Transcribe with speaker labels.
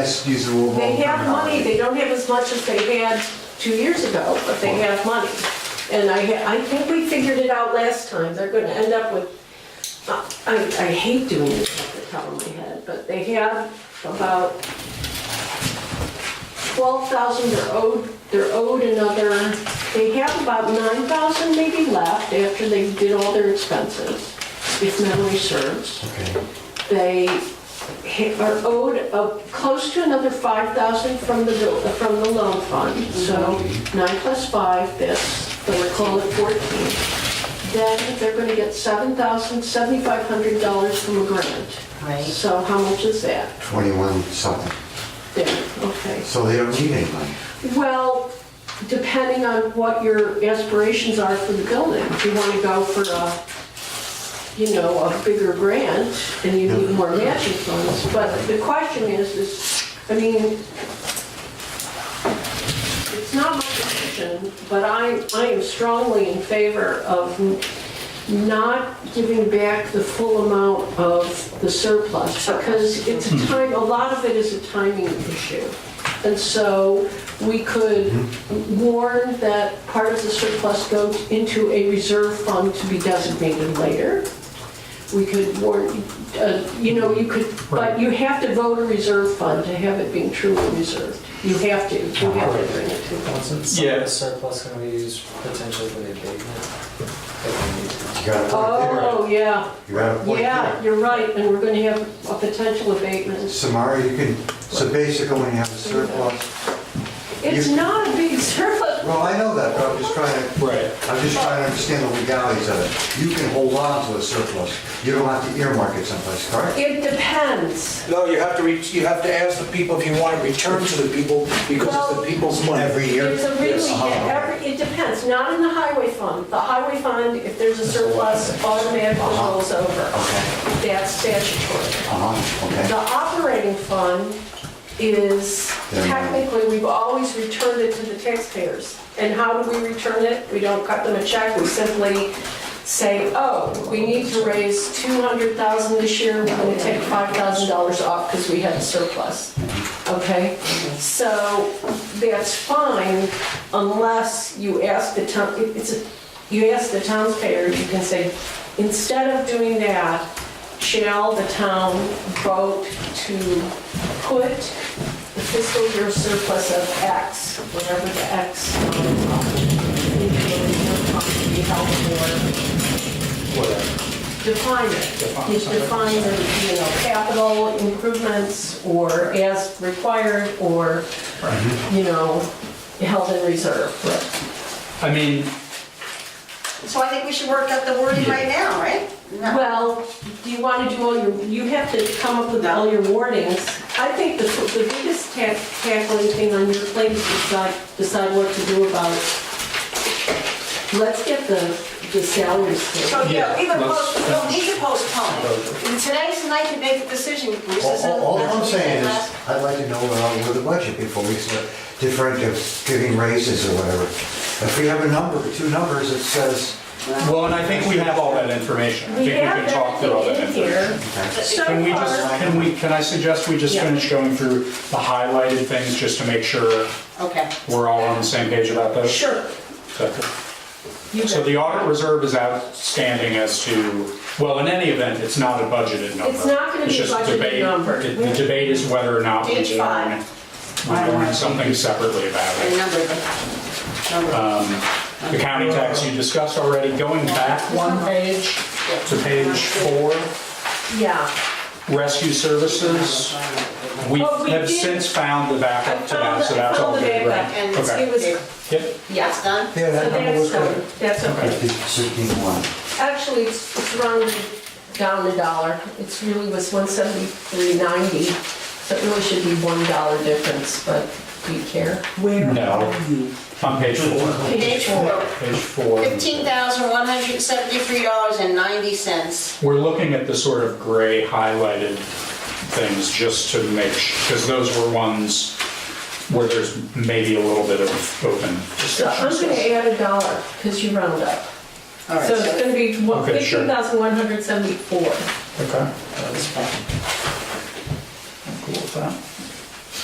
Speaker 1: Let's use the overall
Speaker 2: They have money,
Speaker 1: terminology.
Speaker 2: they don't have as much as they had two years ago, but they have money. And I, ha- I think we figured it out last time, they're gonna end up with, I, I hate doing this off the top of my head, but they have about twelve thousand they're owed, they're owed another, they have about nine thousand maybe left after they did all their expenses, if memory serves
Speaker 1: Okay.
Speaker 2: they ha- are owed a- close to another 5,000 from the, bill- from the loan fund. So nine plus five, this, they were calling it 14. Then they're going to get $7,000, $7,500 from a grant.
Speaker 3: Right.
Speaker 2: So how much is that?
Speaker 1: 21 something.
Speaker 2: There, okay.
Speaker 1: So they don't need any money.
Speaker 2: Well, depending on what your aspirations are for the building, if you want to go for a, you know, a bigger grant and you need more matching funds, but the question is, is, I mean, it's not my decision, but I, I am strongly in favor of not giving back the full amount of the surplus, because it's a time, a lot of it is a timing issue. And so we could warn that part of the surplus goes into a reserve fund to be designated later. We could warn, uh, you know, you could, but you have to vote a reserve fund to have it being truly reserved. You have to, you have to bring it to vote.
Speaker 4: Wasn't some of
Speaker 5: Yeah.
Speaker 4: the surplus gonna be used potentially for the abatement? If we need to.
Speaker 1: You got a point
Speaker 2: Oh, yeah,
Speaker 1: there. You got a point
Speaker 2: yeah,
Speaker 1: there.
Speaker 2: you're right, and we're gonna have a potential abatement.
Speaker 1: Samara, you can, so basically when you have a surplus,
Speaker 2: It's
Speaker 1: You-
Speaker 2: not a big surplus.
Speaker 1: well, I know that, but I'm just trying to,
Speaker 5: Right.
Speaker 1: I'm just trying to understand the legalities of it. You can hold on to a surplus. You don't have to earmark it someplace, correct?
Speaker 2: It depends.
Speaker 6: No, you have to, re- you have to ask the people if you want to return to the people because it's the people's money.
Speaker 1: Every year?
Speaker 2: It's a really,
Speaker 1: Yes.
Speaker 2: yeah, every- it depends, not in the highway fund. The highway fund, if there's a surplus, automatically rolls over.
Speaker 1: Okay,
Speaker 2: That's statutory.
Speaker 1: uh-huh,
Speaker 2: The
Speaker 1: okay.
Speaker 2: operating fund is technically, we've always returned it to the taxpayers. And how do we return it? We don't cut them a check, we simply say, oh, we need to raise 200,000 this year, we're gonna take $5,000 off because we had a surplus. Okay? So that's fine unless you ask the town, it's, a- you ask the taxpayer, you can say, instead of doing that, shall the town vote to put the fiscal year surplus of X, whatever the X um, to be held for, define it. It defines it, you know, capital improvements or as required or, you know, held in reserve.
Speaker 5: I mean,
Speaker 3: So I think we should work out the wording right now, right? No.
Speaker 2: Well, do you want to do all your, you have to come up with all your warnings. I think the, the biggest tack- tackling thing on your plate is decide, decide what to do about. Let's get the, the salaries
Speaker 3: So,
Speaker 2: thing.
Speaker 3: yeah, we would
Speaker 5: Yeah, let's-
Speaker 3: post, we'll need to postpone it. Today's the night to make the decision, Bruce.
Speaker 1: All-
Speaker 3: This
Speaker 1: All all
Speaker 3: isn't-
Speaker 1: I'm saying is, I'd like to know where I'm with the budget before we start differential, giving raises or whatever. If we have a number, two numbers that says,
Speaker 5: well, and I think we have all that information. I think we can talk through all that
Speaker 2: everything in
Speaker 5: information.
Speaker 2: here. So
Speaker 5: Can we just,
Speaker 2: far,
Speaker 5: can we, can I suggest we just
Speaker 2: Yeah.
Speaker 5: finish going through the highlighted things just to make sure
Speaker 3: Okay.
Speaker 5: we're all on the same page about those?
Speaker 2: sure. you
Speaker 5: So
Speaker 2: bet.
Speaker 5: the audit reserve is outstanding as to, well, in any event, it's not a budgeted number.
Speaker 2: It's not gonna
Speaker 5: It's
Speaker 2: be a
Speaker 5: just
Speaker 2: budgeted
Speaker 5: debate-
Speaker 2: number.
Speaker 5: The the debate is whether or not we
Speaker 3: It's
Speaker 5: learn,
Speaker 3: fine.
Speaker 5: we learn something separately about it.
Speaker 3: And number them. Number them.
Speaker 5: The county tax you discussed already, going back one page to page four,
Speaker 2: Yeah.
Speaker 5: rescue services. We
Speaker 2: Oh, we
Speaker 5: have
Speaker 2: did-
Speaker 5: since found the backup to
Speaker 2: I
Speaker 5: that, so
Speaker 2: found- I
Speaker 5: that's all
Speaker 2: found the
Speaker 5: good,
Speaker 2: backup,
Speaker 5: right?
Speaker 3: And
Speaker 5: Okay.
Speaker 2: It was, so
Speaker 5: Yep,
Speaker 3: Yes, done?
Speaker 1: yeah, that number
Speaker 2: that's
Speaker 1: was
Speaker 2: done,
Speaker 1: good.
Speaker 2: that's okay.
Speaker 1: Fifteen one.
Speaker 2: Actually, it's it's rounded down a dollar. It's really was one seventy-three ninety, so it really should be one dollar difference, but do you care?
Speaker 5: no, on page four,
Speaker 3: Page four,
Speaker 5: page four.
Speaker 3: fifteen thousand one hundred seventy-three dollars and ninety cents.
Speaker 5: We're looking at the sort of gray highlighted things just to make, because those were ones where there's maybe a little bit of open
Speaker 2: So I'm gonna add a dollar, because you round up.
Speaker 3: All right,
Speaker 2: So it's
Speaker 3: so
Speaker 2: gonna be one-
Speaker 5: Okay, sure.
Speaker 2: 15,174.
Speaker 5: Okay.
Speaker 3: that was fine.
Speaker 5: Cool with that.